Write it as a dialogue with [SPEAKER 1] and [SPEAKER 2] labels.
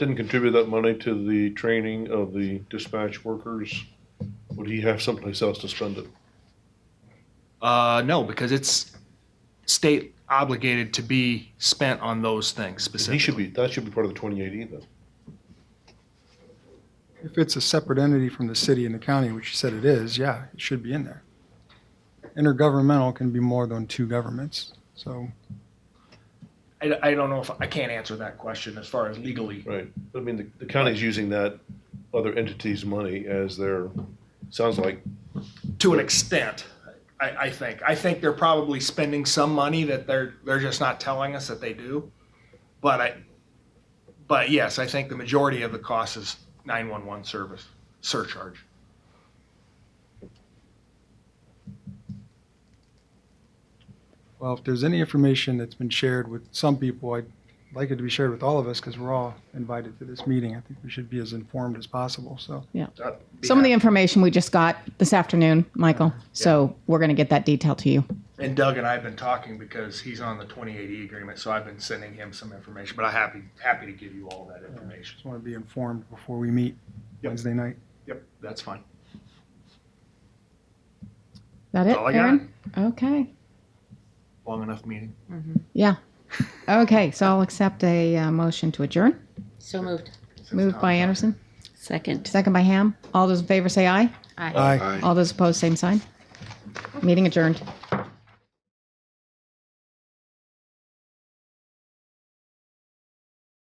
[SPEAKER 1] didn't contribute that money to the training of the dispatch workers, would he have someplace else to spend it?
[SPEAKER 2] Uh, no, because it's state obligated to be spent on those things
[SPEAKER 1] He should
[SPEAKER 2] specifically.
[SPEAKER 1] be, that should be part of the twenty-eight E then.
[SPEAKER 3] If it's a separate entity from the city and the county, which you said it is, yeah, it should be in there. Intergovernmental can be more than two governments, so.
[SPEAKER 2] I, I don't know if, I can't answer that question as far as legally.
[SPEAKER 1] Right. I mean, the, the county's using that other entity's money as their, sounds like,
[SPEAKER 2] to an extent. I, I think. I think they're probably spending some money that they're they're just not telling us that they do. But I, but yes, I think the majority of the cost is nine one one service surcharge.
[SPEAKER 3] Well, if there's any information that's been shared with some people, I'd like it to be shared with all of us because we're all invited to this meeting. I think we should be as informed as possible, so.
[SPEAKER 2] That'd Uh, be
[SPEAKER 4] Some of the
[SPEAKER 2] happy.
[SPEAKER 4] information we just got this afternoon, Michael. So we're going to get that detail to you.
[SPEAKER 2] and Doug and I've been talking because he's on the twenty eighty agreement, so I've been sending him some information. But I'm happy happy to give you all that information.
[SPEAKER 3] Just want to be informed before we meet
[SPEAKER 2] Yep.
[SPEAKER 3] Wednesday night.
[SPEAKER 2] Yep, that's fine.
[SPEAKER 4] That it,
[SPEAKER 2] That's all I got.
[SPEAKER 4] Aaron? Okay.
[SPEAKER 2] Long enough meeting.
[SPEAKER 4] Yeah. Okay. So I'll accept a uh, motion to adjourn.
[SPEAKER 5] So moved.
[SPEAKER 2] since
[SPEAKER 4] Moved
[SPEAKER 2] Tom's
[SPEAKER 4] by
[SPEAKER 2] not here.
[SPEAKER 4] Anderson,
[SPEAKER 5] Second.
[SPEAKER 4] second by Ham. All those in favor say aye.
[SPEAKER 3] Aye.
[SPEAKER 4] All those opposed, same sign. Meeting adjourned.